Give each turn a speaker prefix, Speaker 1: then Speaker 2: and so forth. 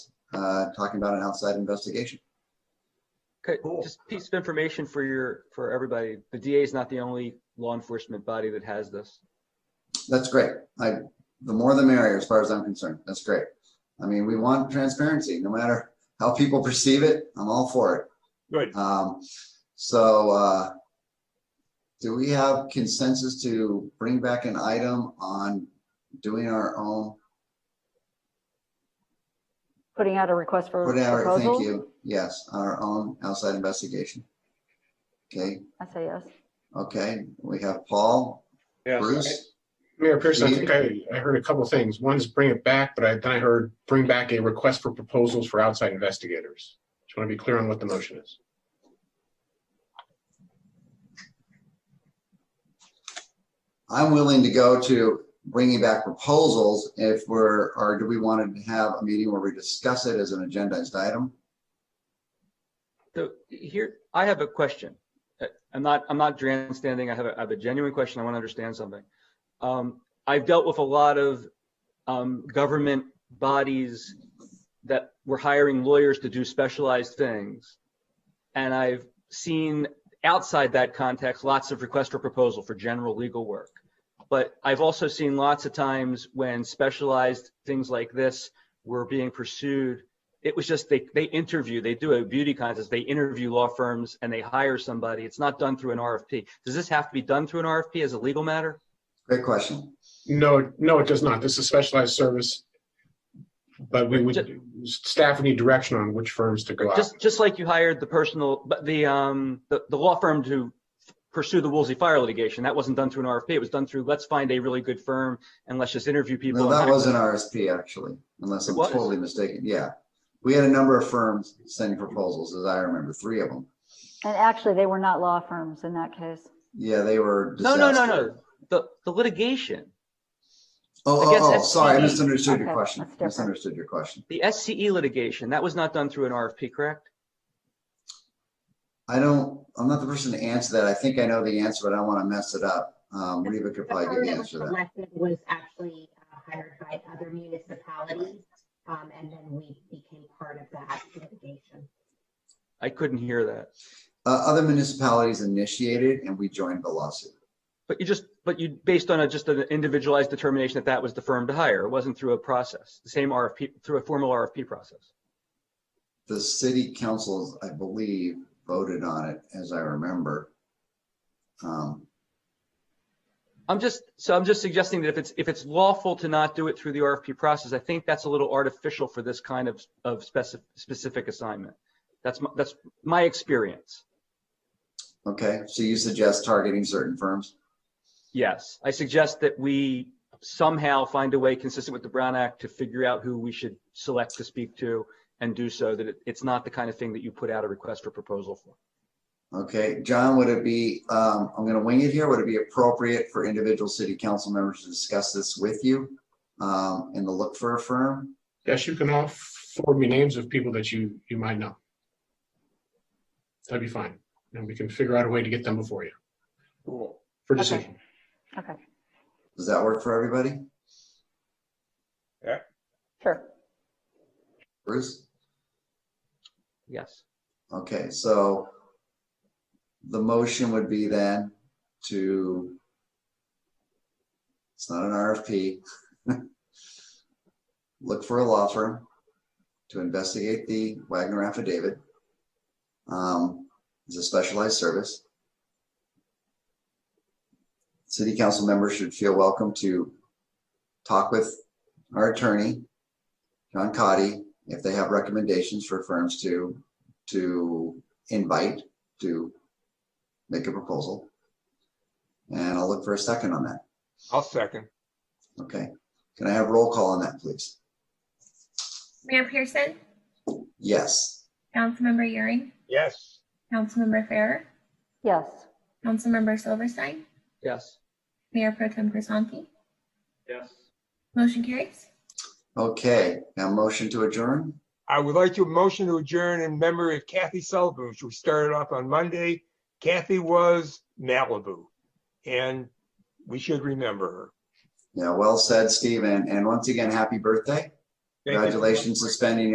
Speaker 1: uh, talking about an outside investigation.
Speaker 2: Okay,
Speaker 3: Cool.
Speaker 2: just piece of information for your, for everybody. The DA is not the only law enforcement body that has this.
Speaker 1: That's great. I, the more the merrier, as far as I'm concerned. That's great. I mean, we want transparency, no matter how people perceive it. I'm all for it.
Speaker 3: Good.
Speaker 1: Um, so, uh, do we have consensus to bring back an item on doing our own?
Speaker 4: Putting out a request for
Speaker 1: Whatever, thank
Speaker 4: proposal?
Speaker 1: you. Yes, our own outside investigation. Okay,
Speaker 4: I say yes.
Speaker 1: okay. We have Paul, Bruce.
Speaker 5: Mayor Pearson, I
Speaker 1: Please.
Speaker 5: think I, I heard a couple things. One is bring it back, but I, then I heard bring back a request for proposals for outside investigators. Just want to be clear on what the motion is.
Speaker 1: I'm willing to go to bringing back proposals if we're, or do we want to have a meeting where we discuss it as an agendized item?
Speaker 2: So here, I have a question. Uh, I'm not, I'm not grandstanding. I have a, I have a genuine question. I want to understand something. Um, I've dealt with a lot of, um, government bodies that were hiring lawyers to do specialized things. And I've seen outside that context, lots of requests for proposal for general legal work. But I've also seen lots of times when specialized things like this were being pursued it was just they they interview they do a beauty contest they interview law firms and they hire somebody it's not done through an rfp does this have to be done through an rfp as a legal matter
Speaker 1: Great question.
Speaker 5: No, no, it does not. This is specialized service. But we would, staff would need direction on which firms to go out.
Speaker 2: just just like you hired the personal but the um the, the law firm to pursue the woolsey fire litigation that wasn't done through an rfp it was done through let's find a really good firm and let's just interview people
Speaker 1: No,
Speaker 2: and
Speaker 1: that
Speaker 2: hire-
Speaker 1: was an RSP actually, unless I'm
Speaker 2: It was.
Speaker 1: totally mistaken. Yeah. We had a number of firms sending proposals, as I remember, three of them.
Speaker 4: And actually, they were not law firms in that case.
Speaker 1: Yeah, they were.
Speaker 2: no no no
Speaker 1: disaster.
Speaker 2: no the the litigation
Speaker 1: Oh,
Speaker 2: I guess
Speaker 1: oh, oh,
Speaker 2: that's-
Speaker 1: sorry, I misunderstood your
Speaker 4: Okay,
Speaker 1: question.
Speaker 4: that's different.
Speaker 1: Misunderstood your question.
Speaker 2: the sce litigation that was not done through an rfp correct
Speaker 1: I don't, I'm not the person to answer that. I think I know the answer, but I don't want to mess it up. Um, Reba could
Speaker 6: The
Speaker 1: probably
Speaker 6: firm
Speaker 1: give the
Speaker 6: that was
Speaker 1: answer to that.
Speaker 6: selected was actually uh, hired by other municipalities, um, and then we became part of that litigation.
Speaker 2: i couldn't hear that
Speaker 1: Uh, other municipalities initiated and we joined the lawsuit.
Speaker 2: But you just, but you, based on a, just an individualized determination that that was the firm to hire, it wasn't through a process, the same RFP, through a formal RFP process.
Speaker 1: The city councils, I believe, voted on it as I remember. Um,
Speaker 2: I'm just, so I'm just suggesting that if it's, if it's lawful to not do it through the RFP process, I think that's a little artificial for this kind of, of specific, specific assignment. That's, my that's my experience.
Speaker 1: okay, so you suggest targeting certain firms?
Speaker 2: Yes, I suggest that we somehow find a way consistent with the Brown Act to figure out who we should select to speak to and do so that it, it's not the kind of thing that you put out a request for proposal for.
Speaker 1: Okay, John, would it be, um, I'm gonna wing it here, would it be appropriate for individual city council members to discuss this with you? Um, and to look for a firm?
Speaker 5: Yes, you can all forward me names of people that you, you might know. That'd be fine. And we can figure out a way to get them before you
Speaker 3: Cool.
Speaker 5: for
Speaker 4: Okay.
Speaker 5: decision.
Speaker 4: Okay,
Speaker 1: Does that work for everybody?
Speaker 4: sure.
Speaker 1: Bruce?
Speaker 2: Yes.
Speaker 1: Okay, so the motion would be then to, it's not an RFP. Look for a law firm to investigate the Wagner affidavit. Um, It's a specialized service. City council members should feel welcome to talk with our attorney, John Cotty, if they have recommendations for firms to to invite to make a proposal. And I'll look for a second on that.
Speaker 3: I'll second.
Speaker 1: Okay. Can I have roll call on that, please?
Speaker 7: Mayor Pearson,
Speaker 1: Yes.
Speaker 7: Councilmember Euring,
Speaker 3: Yes.
Speaker 7: Councilmember Farrer,
Speaker 4: Yes,
Speaker 7: Councilmember Silverstein,
Speaker 2: Yes.
Speaker 7: Mayor Pro Tem Grisanti.
Speaker 2: Yes.
Speaker 7: Motion carries.
Speaker 1: Okay. Now motion to adjourn.
Speaker 3: I would like to motion to adjourn in memory of Kathy Sullivan, which we started off on Monday. Kathy was Malibu, and we should remember
Speaker 1: Yeah, well said, Steve. And, and once again, happy birthday.
Speaker 3: her. Thank you.
Speaker 1: Congratulations, suspending